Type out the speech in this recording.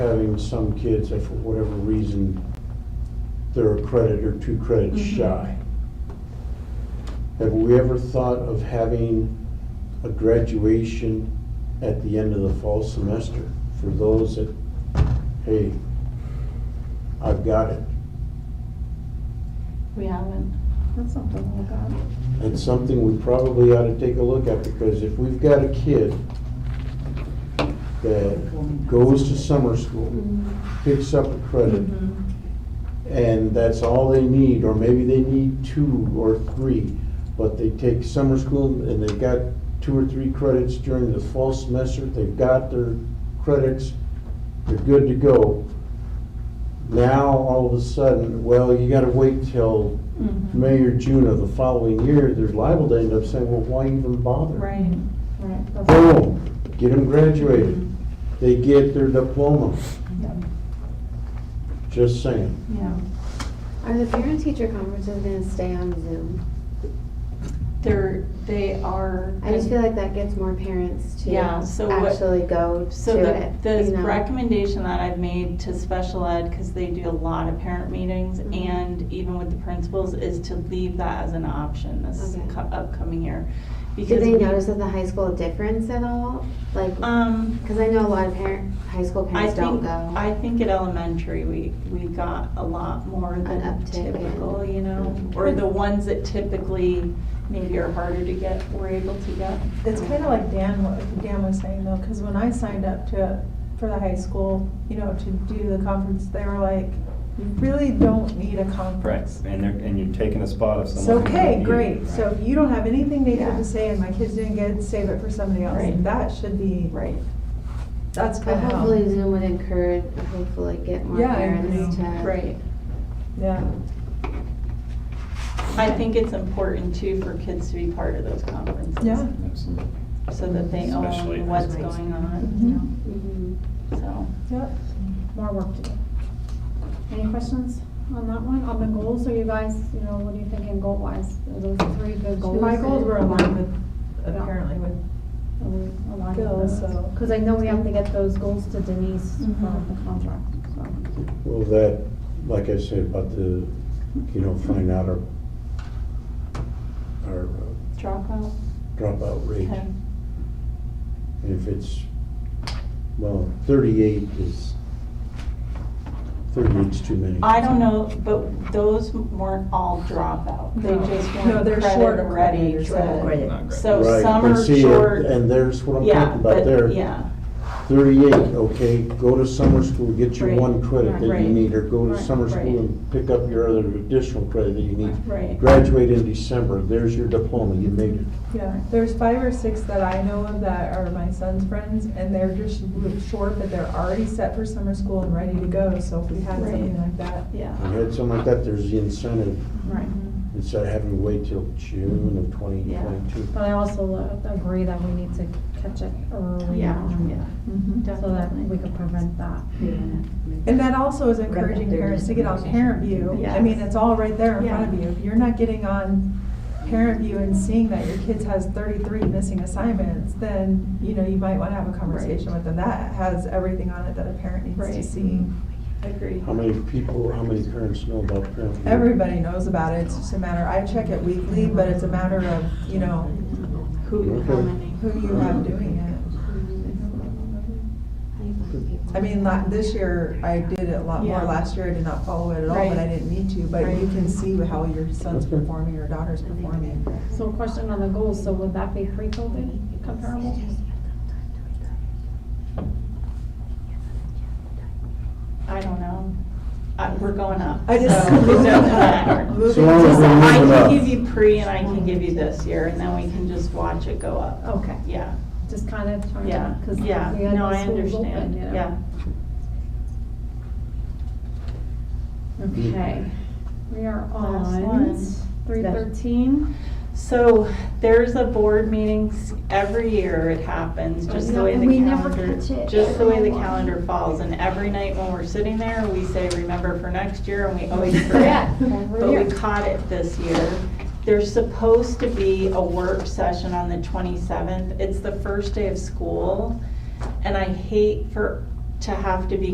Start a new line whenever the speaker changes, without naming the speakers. some kids that for whatever reason, they're a credit or two credits
Mhm.
shy. Have we ever thought of having a graduation at the end of the fall semester for those that, hey, I've got it?
We haven't. That's something we've got.
It's something we probably ought to take a look at, because if we've got a kid that goes to summer school,
Mm-hmm.
picks up a credit,
Mhm.
and that's all they need, or maybe they need two or three, but they take summer school and they've got two or three credits during the fall semester, they've got their credits, they're good to go. Now, all of a sudden, well, you gotta wait till
Mhm.
May or June of the following year, there's liable to end up saying, well, why even bother?
Mm-hmm. Right, right. that's-
Boom, get them graduated, they get their diploma,
Yep,
just saying.
Yeah.
Are the parent-teacher conferences gonna stay on Zoom?
They're, they are.
I just feel like that gets more parents to
Yeah, so what-
actually go
So
to
the,
it.
the
you know?
recommendation that I've made to special ed, because they do a lot of parent meetings
Mhm.
and even with the principals, is to leave that as an option this
Okay.
co- upcoming year.
Do
Because
they
we-
notice at the high school difference at all? Like,
Um,
because I know a lot of parent, high school
I
parents don't
think,
go.
I think at elementary, we, we got a lot more than
uptick in-
typical, you know? Or the ones that typically maybe are harder to get, were able to get.
It's kind of like Dan, wa- Dan was saying though, because when I signed up to, for the high school, you know, to do the conference, they were like, you really don't need a
Right,
conference.
and they're, and you're taking a spot of
It's
someone. who might
okay,
need it,
great,
right.
so if you don't have anything negative
Yeah.
to say and my kids didn't get it, save it for somebody else.
Right.
That should be,
Right.
that's
But
kind of
hopefully
how,
Zoom would encourage, hopefully get more
Yeah, I
parents to.
agree.
Right.
yeah.
I think it's important too for kids to be part of those conferences.
Yeah.
Absolutely.
So that they
Especially
own
at
what's
high
going
school.
on,
Mm-hmm.
you
Mhm.
know, so.
Yep, more work to do.
Any questions on that one? On the goals, are you guys, you know, what are you thinking goal wise? Are those three good goals?
My
that-
goals were aligned with, apparently with,
Are we aligned with
Goals,
those?
so-
Cause I know we have to get those goals to Denise for
Mhm.
the contract, so.
Well, that, like I said, about the, you know, find out our, our uh,
Dropout,
dropout rate.
okay.
And if it's, well, thirty-eight is, thirty-eight's too many.
I don't know, but those weren't all dropout. They
No.
just
No,
weren't
they're shorter
credit ready.
credits, yeah.
to-
Not great.
So
Right,
some
but
are
see,
short.
And there's what I'm
Yeah,
talking about
but,
there.
yeah,
Thirty-eight, okay, go to summer school, get your
Right,
one credit that
right,
you need, or go to
right,
summer school
right.
and pick up your other additional credit that you need.
right.
Graduate in December, there's your diploma, you made it.
yeah, there's five or six that I know of that are my son's friends, and they're just real short, but they're already set for summer school and ready to go, so if we had
Right.
something like that.
Yeah,
I had something like that, there's the incentive,
right.
instead of having to wait till June of twenty
Yeah.
twenty-two.
But I also lo- agree that we need to catch it early
Yeah,
on,
Mm-hmm.
so that
definitely.
we could prevent that.
And that also is encouraging parents to get on Parent View. I mean,
Yes.
it's all right there in front of you. If you're not getting on Parent View and seeing that your kids has thirty-three missing assignments, then, you know, you might wanna have a conversation with them. That has everything on it that a parent needs to
Right.
see.
Agreed.
How many people, how many parents know about parent? View?
Everybody knows about it. It's just a matter, I check it weekly, but it's a matter of, you know,
Who, how
Okay.
many?
who you have doing it.
How do you find people?
I mean, la this year, I did it a lot more.
Yeah.
Last year, I did not follow it at all, but I
Right.
didn't need to. But you
Right.
can see how your son's
Okay.
performing, your daughter's performing.
So a question on the goals, so would that be pre-COVID comparable?
I don't know. Uh, we're going up.
I just-
so it doesn't matter.
So long as
Just,
we're
I
moving
can
up.
give you pre and I can give you this year, and then we can just watch it go up.
Okay,
Yeah,
just kind of trying
yeah,
to, because we
yeah.
had
No, I
the schools open,
understand,
you know?
yeah.
Okay, we are
Last
on
one.
three thirteen.
So there's a board meeting s- every year, it happens, just the
No,
way the
we never catch
calendar,
it.
just the way the calendar falls. And every night when we're sitting there, we say, remember for next year, and we always forget. But we caught it this year. There's supposed to be a work session on the 27th. It's the first day of school, and I hate for, to have to be